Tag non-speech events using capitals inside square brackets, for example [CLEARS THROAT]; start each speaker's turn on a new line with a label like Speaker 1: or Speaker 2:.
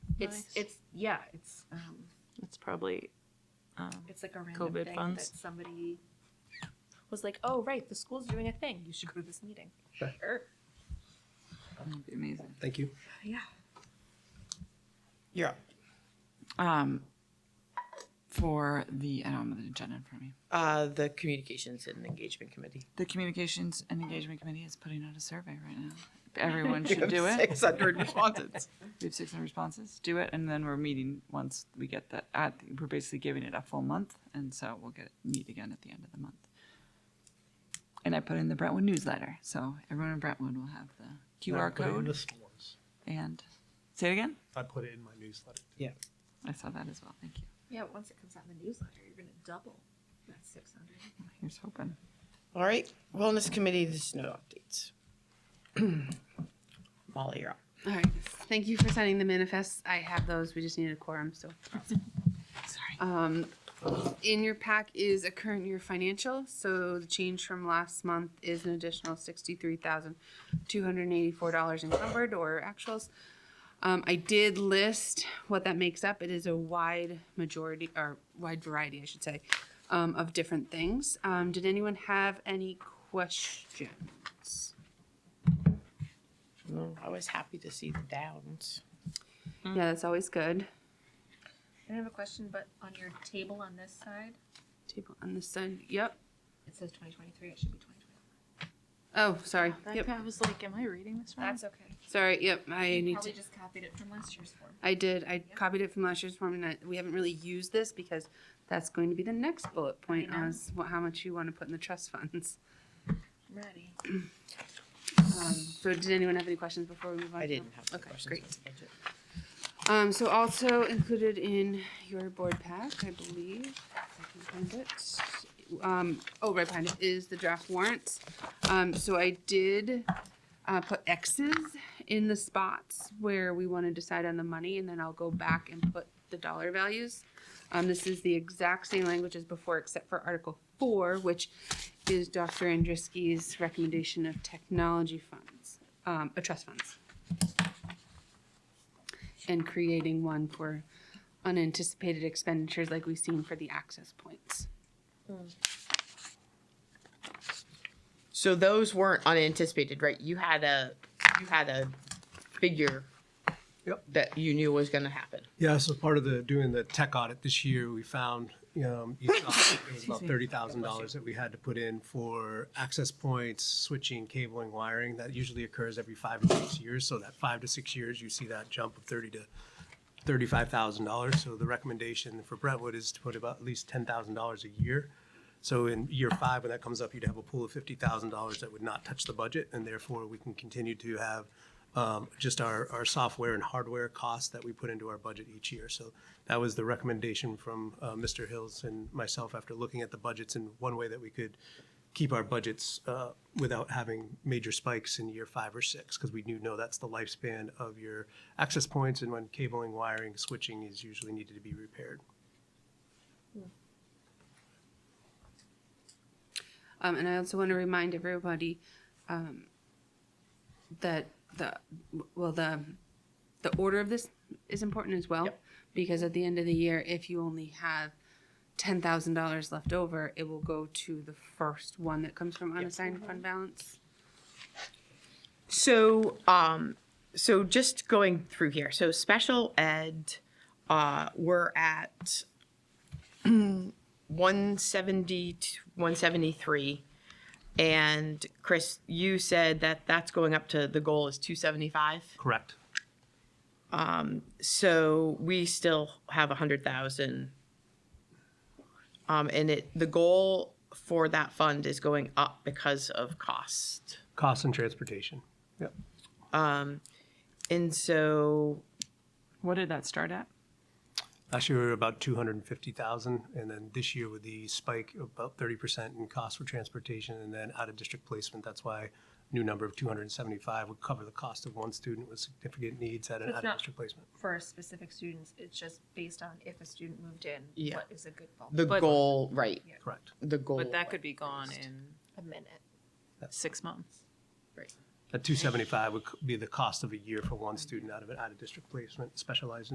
Speaker 1: It's
Speaker 2: Nice.
Speaker 1: it's yeah, it's um,
Speaker 2: It's probably. Um,
Speaker 1: it's like a random
Speaker 2: COVID
Speaker 1: thing
Speaker 2: funds.
Speaker 1: that somebody was like, oh right, the school's doing a thing. You should go to this meeting.
Speaker 3: Sure.
Speaker 1: Sure.
Speaker 4: That'd be amazing.
Speaker 3: Thank you.
Speaker 1: Yeah.
Speaker 5: Yeah.
Speaker 4: Um, for the, I don't have the agenda in front of me.
Speaker 5: Uh, the communications and engagement committee.
Speaker 4: The Communications and Engagement Committee is putting out a survey right
Speaker 5: [LAUGHS]
Speaker 4: now. Everyone should do it.
Speaker 5: Six hundred respondents.
Speaker 4: We have six hundred responses. Do it, and then we're meeting once we get that. At we're basically giving it a full month, and so we'll get meet again at the end of the month. And I put in the Brentwood newsletter, so everyone in Brentwood will have the QR
Speaker 3: I put it in
Speaker 4: code.
Speaker 3: the s'mores.
Speaker 4: and say it again.
Speaker 3: I put it in my newsletter.
Speaker 4: I saw that as well. Thank you.
Speaker 1: Yeah, once it comes out in the newsletter, you're gonna double that six hundred.
Speaker 4: Here's hoping.
Speaker 5: [LAUGHS] All right, wellness committee, there's no updates. [CLEARS THROAT] Molly, you're up.
Speaker 6: All right. Thank you for signing the manifests. I have those. We just needed a quorum, so.
Speaker 4: Sorry.
Speaker 6: Um, in your pack is a current year financial, so the change from last month is an additional sixty-three thousand, two hundred and eighty-four dollars encumbered or actuals. Um, I did list what that makes up. It is a wide majority, or wide variety, I should say, um, of different things. Um, did anyone have any questions?
Speaker 5: No, I was happy to see the downs.
Speaker 6: Yeah, that's always good.
Speaker 1: I have a question, but on your table on this side,
Speaker 6: Table on this side, yep.
Speaker 1: it says twenty twenty three, it should be twenty twenty.
Speaker 6: Oh, sorry.
Speaker 2: that
Speaker 6: Yep.
Speaker 2: I was like, am I reading this wrong?
Speaker 1: That's okay.
Speaker 6: Sorry. Yep. I
Speaker 1: You
Speaker 6: need
Speaker 1: probably
Speaker 6: to.
Speaker 1: just copied it from last year's form.
Speaker 6: I did. I copied it from last year's form, and I, we haven't really used this because that's going to be the next bullet point
Speaker 1: know.
Speaker 6: as wha- how much you want to put in the trust funds.
Speaker 1: I'm ready.
Speaker 6: Um, so, did anyone have any questions before we move on?
Speaker 5: I
Speaker 6: to-
Speaker 5: didn't have any
Speaker 6: Okay,
Speaker 5: questions.
Speaker 6: great.
Speaker 5: on the budget.
Speaker 6: Um, so also included in your board pack, I believe, if I can find it. Um, oh, right behind it is the draft warrants. Um, so I did, uh, put X's in the spots where we want to decide on the money, and then I'll go back and put the dollar values. Um, this is the exact same language as before, except for Article Four, which is Dr. Andruski's recommendation of technology funds, um, uh, trust funds and creating one for unanticipated expenditures like we've seen for the access points.
Speaker 5: So those weren't unanticipated, right? You had a, you had a figure
Speaker 3: Yep.
Speaker 5: that you knew was gonna happen.
Speaker 3: Yeah, so part of the, doing the tech audit this year, we found, um, you know, it was about thirty thousand dollars that we had to put in for access points, switching, cabling, wiring. That usually occurs every five to six years, so that five to six years, you see that jump of thirty to thirty-five thousand dollars. So the recommendation for Brentwood is to put about at least ten thousand dollars a year. So in year five, when that comes up, you'd have a pool of fifty thousand dollars that would not touch the budget, and therefore we can continue to have um, just our, our software and hardware costs that we put into our budget each year. So that was the recommendation from uh, Mr. Hills and myself after looking at the budgets and one way that we could keep our budgets uh, without having major spikes in year five or six, because we do know that's the lifespan of your access points and when cabling, wiring, switching is usually needed to be repaired.
Speaker 6: Um, and I also want to remind everybody, um, that the, well, the, the order of this is important as well.
Speaker 5: Yep.
Speaker 6: Because at the end of the year, if you only have ten thousand dollars left over, it will go to the first one that comes from unassigned fund balance.
Speaker 5: So, um, so just going through here, so special ed, uh, we're at [CLEARS THROAT] one seventy, one seventy-three. And Chris, you said that that's going up to, the goal is two seventy-five?
Speaker 3: Correct.
Speaker 5: so we still have a hundred thousand. Um, and it, the goal for that fund is going up because of cost.
Speaker 3: Costs and transportation. Yep.
Speaker 5: And so,
Speaker 4: What did that start at?
Speaker 3: Last year, we were about two hundred and fifty thousand, and then this year with the spike, of about thirty percent in cost for transportation, and then out-of-district placement, that's why new number of two hundred and seventy-five would cover the cost of one student with significant needs at an
Speaker 1: It's not-
Speaker 3: out-of-district placement.
Speaker 1: For specific students, it's just based on if a student moved in,
Speaker 5: Yeah.
Speaker 1: what is a good ball
Speaker 5: the
Speaker 2: But-
Speaker 5: goal, right,
Speaker 3: Correct.
Speaker 5: the goal.
Speaker 2: But that could be gone in
Speaker 1: a minute.
Speaker 2: six months.
Speaker 3: That two seventy-five would c- be the cost of a year for one student out of an out-of-district placement, specialized